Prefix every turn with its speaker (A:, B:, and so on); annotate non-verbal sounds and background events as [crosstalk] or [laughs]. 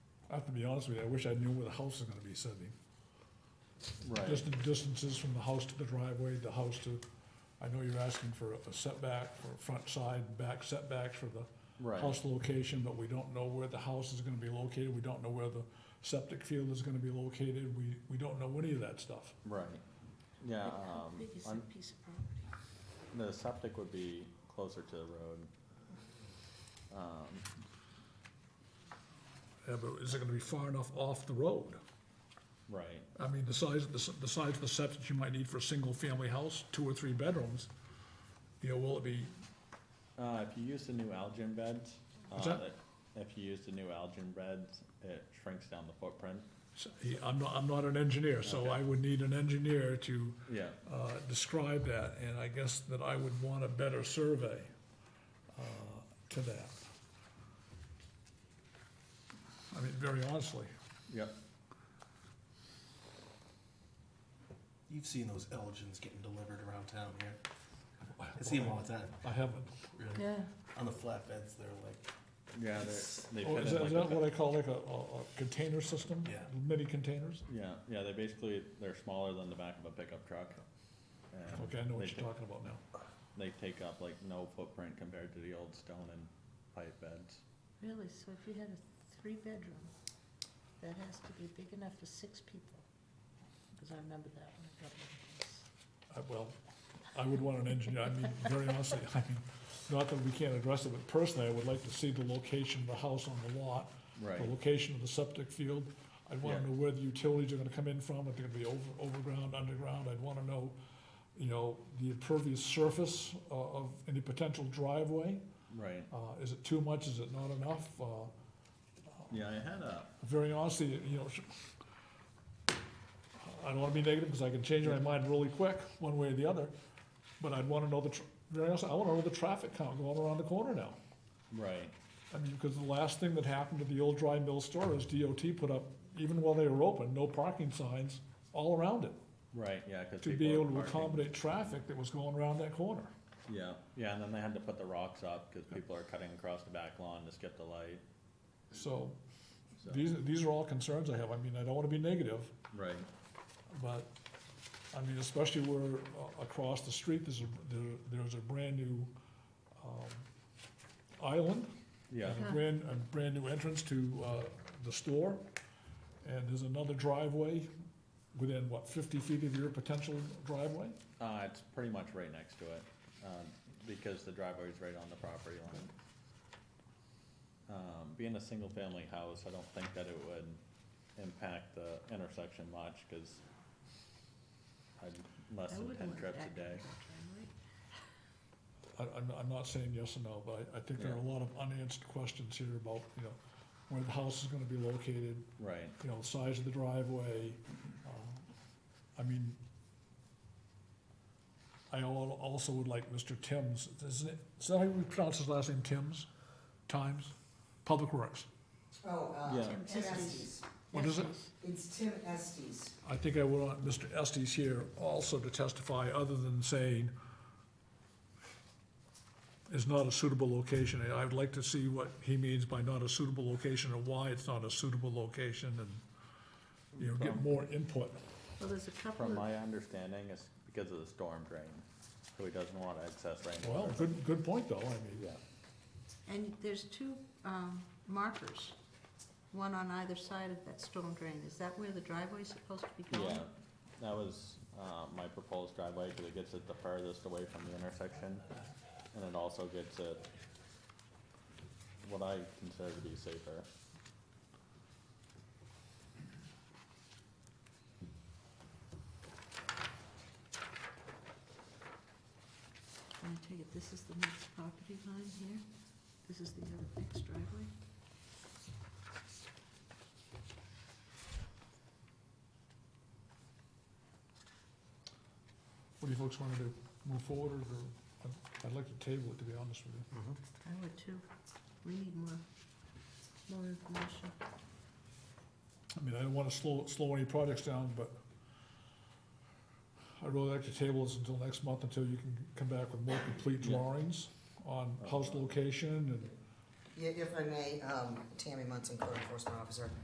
A: I have to be honest with you, I wish I knew where the house is gonna be sitting.
B: Right,
A: Just the distances from the house to the driveway, the house to, I know you're asking for a setback, for front side, back setbacks for the
B: right,
A: house location, but we don't know where the house is gonna be located, we don't know where the septic field is gonna be located, we, we don't know any of that stuff.
B: right. Yeah,
C: How
B: um,
C: big is
B: on-
C: that piece of property?
B: the septic would be closer to the road. Um,
A: Yeah, but is it gonna be far enough off the road?
B: Right,
A: I mean, the size, the s- the size of the septic you might need for a single-family house, two or three bedrooms, you know, will it be,
B: uh, if you use the new algae beds.
A: What's
B: uh,
A: that?
B: If you use the new algae beds, it shrinks down the footprint.
A: s- I'm not, I'm not an engineer, so I would need an engineer to
B: Yeah,
A: uh, describe that, and I guess that I would want a better survey uh, to that. I mean, very honestly,
B: yep,
D: You've seen those Elgins getting delivered around town here. I see them all the time.
A: I haven't.
D: Really.
C: Yeah.
D: On the flatbeds, they're like,
B: yeah, they're,
D: It's-
B: they
A: Oh,
B: fit
A: Is
B: in
A: that,
B: like
A: is
B: a
A: that
B: fa-
A: what I call like a, a a container system?
D: Yeah.
A: Mini containers?
B: Yeah, yeah, they basically, they're smaller than the back of a pickup truck. and
A: Okay, I know
B: they
A: what you're
B: ta-
A: talking about now.
B: They take up like no footprint compared to the old stone and pipe beds.
C: Really, so if you had a three-bedroom, that has to be big enough for six people, because I remember that when I got one
A: I- Uh, Well, I would want an engineer, I mean, very honestly, [laughs] I mean, not that we can't address it, but personally, I would like to see the location of the house on the lot, the location of the septic field. I'd wanna
B: Yeah.
A: know where the utilities are gonna come in from, if they're gonna be over, overground, underground, I'd wanna know, you know, the impervious surface uh, of any potential driveway.
B: Right,
A: Uh, is it too much, is it not enough? Uh,
B: yeah, I had a,
A: very honestly, you know, sh- I don't wanna be negative, cause I can change my mind really quick, one way or the other, but I'd wanna know the, tr- very honestly, I wanna know the traffic count going around the corner now.
B: right,
A: I mean, because the last thing that happened to the old dry mill store is DOT put up, even while they were open, no parking signs all around it
B: right, yeah, cause
A: to
B: people.
A: be
B: are
A: able to
B: parking.
A: accommodate traffic that was going around that corner.
B: Yeah, yeah, and then they had to put the rocks up, cause people are cutting across the back lawn to skip the light,
A: So
B: so,
A: these, these are all concerns I have. I mean, I don't want to be negative,
B: right,
A: but, I mean, especially where uh, across the street, there's a, there, there's a brand-new um, island
B: yeah,
A: and a brand, a brand-new entrance to uh, the store. And there's another driveway within, what, 50 feet of your potential driveway?
B: uh, it's pretty much right next to it, um, because the driveway's right on the property line. Um, being a single-family house, I don't think that it would impact the intersection much, cause I'd less
C: I
B: than
C: wouldn't
B: ten
C: want
B: trips
C: that
B: a day,
C: bedroom,
A: I, I'm, I'm not saying yes or no, but I, I think there are a lot of unanswered questions here about, you know, where the house is gonna be located,
B: right,
A: you know, the size of the driveway. um, I mean, I al- also would like Mr. Timms, is it, is that how you pronounce his last name, Timms? Times? Public Works.
E: Oh, uh,
B: Yeah.
C: Tim
E: Tim
C: Estes.
E: Estes.
A: What is it?
C: Estes.
E: It's Tim Estes.
A: I think I would want Mr. Estes here also to testify, other than saying is not a suitable location. I would like to see what he means by not a suitable location and why it's not a suitable location and, you know, get more input.
C: Well, there's a couple
B: From
C: of,
B: my understanding, it's because of the storm drain, so he doesn't want excess rainwater.
A: Well, good, good point though, I mean,
C: and there's two um, markers, one on either side of that storm drain. Is that where the driveway's supposed to be going?
B: Yeah, that was, uh, my proposed driveway, cause it gets it the furthest away from the intersection, and it also gets it what I consider to be safer.
C: And I take it this is the next property line here? This is the other next driveway?
A: what do you folks wanna do? Move forward or, I'd- I'd like to table it, to be honest with you.
C: I would too. We need more, more information.
A: I mean, I don't wanna slow, slow any projects down, but I'd really like to table this until next month, until you can come back with more complete
B: Yeah.
A: drawings on house location and
E: Yeah, If I may, um, Tammy Munson, Code Enforcement Officer.